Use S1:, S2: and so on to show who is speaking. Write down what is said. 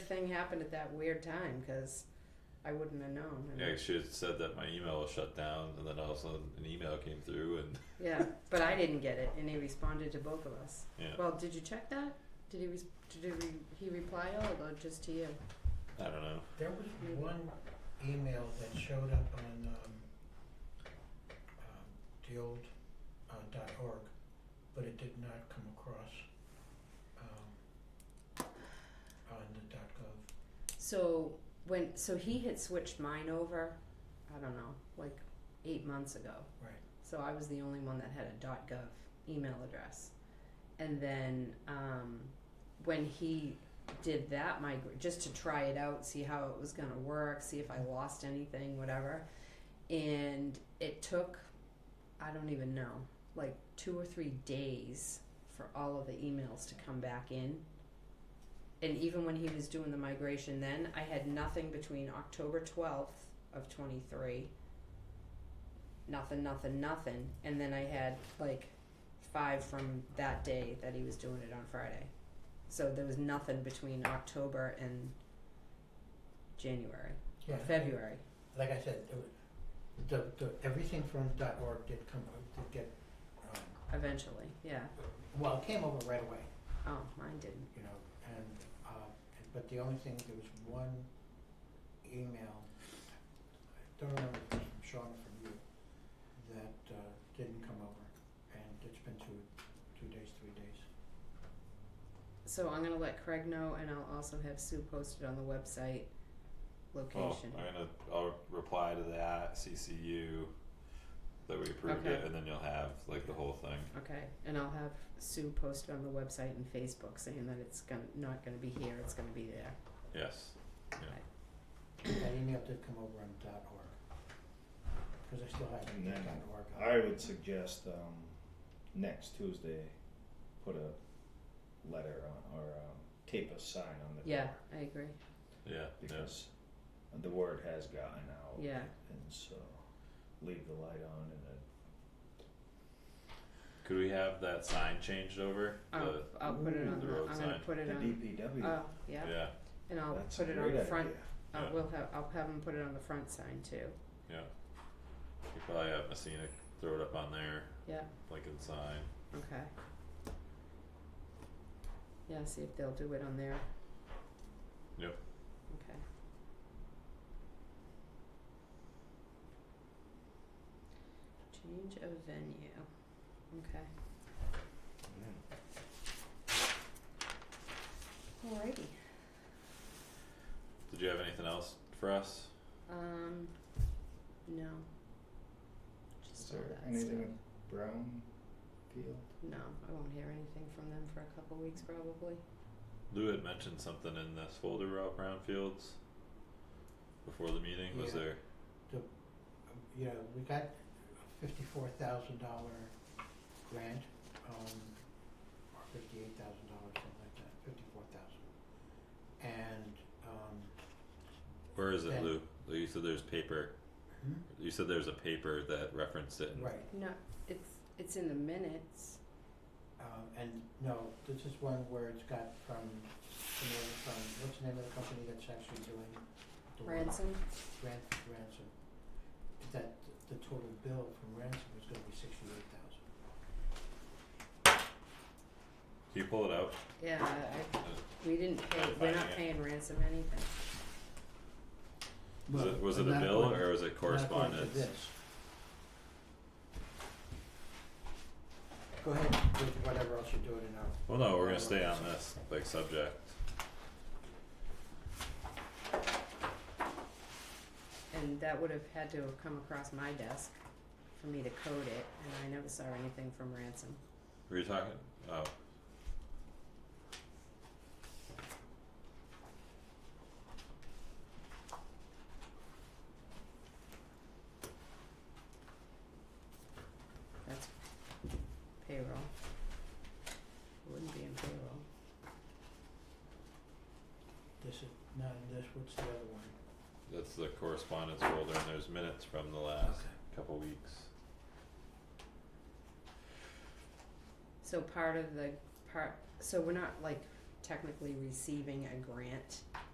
S1: thing happened at that weird time because I wouldn't have known. I mean,
S2: Yeah, she had said that my email was shut down, and then all of a sudden an email came through, and
S1: yeah, but I didn't get it, and he responded to both of us.
S2: Yeah.
S1: Well, did you check that? Did he res- did he, re- he reply all or just to you?
S2: I don't know.
S3: There was one email that showed up on, um, um, the old, uh, dot org, but it did not come across, um, on the dot gov.
S1: So when so he had switched mine over, I don't know, like eight months ago.
S3: Right.
S1: So I was the only one that had a .gov email address, and then um, when he did that migrate just to try it out, see how it was gonna work, see if I lost anything, whatever, and it took I don't even know like two or three days for all of the emails to come back in and even when he was doing the migration then i had nothing between october 12th of 23 nothing nothing nothing and then i had like five from that day that he was doing it on friday so there was nothing between october and january
S3: Yeah,
S1: or
S3: I think-
S1: february
S3: Like I said, it was, the, the, everything from dot org did come, did get, um,
S1: eventually yeah
S3: well, it came over right away.
S1: oh mine didn't
S3: you know, and, uh, but the only thing, there was one email, I don't remember if it was from Sean or from you, that, uh, didn't come over, and it's been two, two days, three days.
S1: so i'm going to let craig know and i'll also have sue posted on the website
S2: Well,
S1: location
S2: I'm gonna I'll reply to that CCU that we approved
S1: Okay.
S2: it, and then you'll have like the whole thing.
S1: Okay, and I'll have Sue post on the website and Facebook saying that it's gonna, not gonna be here, it's gonna be there.
S2: Yes.
S3: That email did come over on dot org, cause I still have
S4: And
S3: the
S4: then
S3: dot org. on.
S4: I would suggest um, next Tuesday, put a letter on or um, tape a sign on the
S1: Yeah,
S4: door
S1: I agree,
S2: Yeah. Yeah.
S4: because the word has gotten out,
S1: Yeah.
S4: and so leave the light on and it
S2: Could we have that sign changed over?
S1: I'll,
S2: The-
S1: I'll put it
S4: Ooh,
S1: on,
S2: the
S1: the-
S2: road
S1: I'm gonna
S2: sign.
S1: put it
S4: the
S1: on,
S4: DPW.
S1: oh, yeah,
S2: yeah.
S1: and I'll
S4: That's a
S1: put it on
S4: great
S1: the front,
S4: idea.
S1: uh,
S2: Yeah.
S1: we'll have, I'll have them put it on the front sign too,
S2: You probably have Messina throw it up on there,
S1: yeah,
S2: Lincoln sign.
S1: okay. Yeah, see if they'll do it on there.
S2: Yep.
S1: Okay. Change of venue, okay. Alrighty.
S2: Did you have anything else for us?
S1: Um, no.
S4: Is
S1: Just all
S4: there
S1: that
S4: anything
S1: stuff.
S4: with Brown Field?
S1: No, I won't hear anything from them for a couple weeks probably.
S2: Lou had mentioned something in this folder about brownfields before the meeting. Was
S3: Yeah.
S2: there?
S3: Um, You know, we got a fifty-four thousand dollar grant, um, or fifty-eight thousand dollars, something like that, fifty-four thousand. And, um,
S2: Where is it,
S3: Yeah.
S2: Lou? Lou, You said there's paper. You said there's a paper that referenced it. And
S3: right,
S1: No, it's, it's in the minutes.
S3: Um, and no, this is one where it's got from, the name from, what's the name of the company that's actually doing the work?
S1: Ransom,
S3: Ran- Ransom. That, the total bill from Ransom is gonna be sixty-eight thousand.
S2: Can you pull it out?
S1: yeah, I, I, we didn't pay,
S2: I'm
S1: we're
S2: finding
S1: not
S2: it.
S1: paying ransom anything.
S2: Was it, was it a bill or was it correspondence?
S3: Go ahead with whatever else you're doing and
S2: Well,
S3: I'll
S2: no, we're gonna stay on this like subject.
S1: And that would have had to have come across my desk for me to code it, and I never saw anything from ransom.
S2: Were you talking? Oh,
S1: That's payroll. It Wouldn't be in payroll.
S3: This is, not in this, what's the other one?
S2: that's the correspondence folder, and there's minutes from the last couple weeks.
S1: So part of the part, so we're not like technically receiving a grant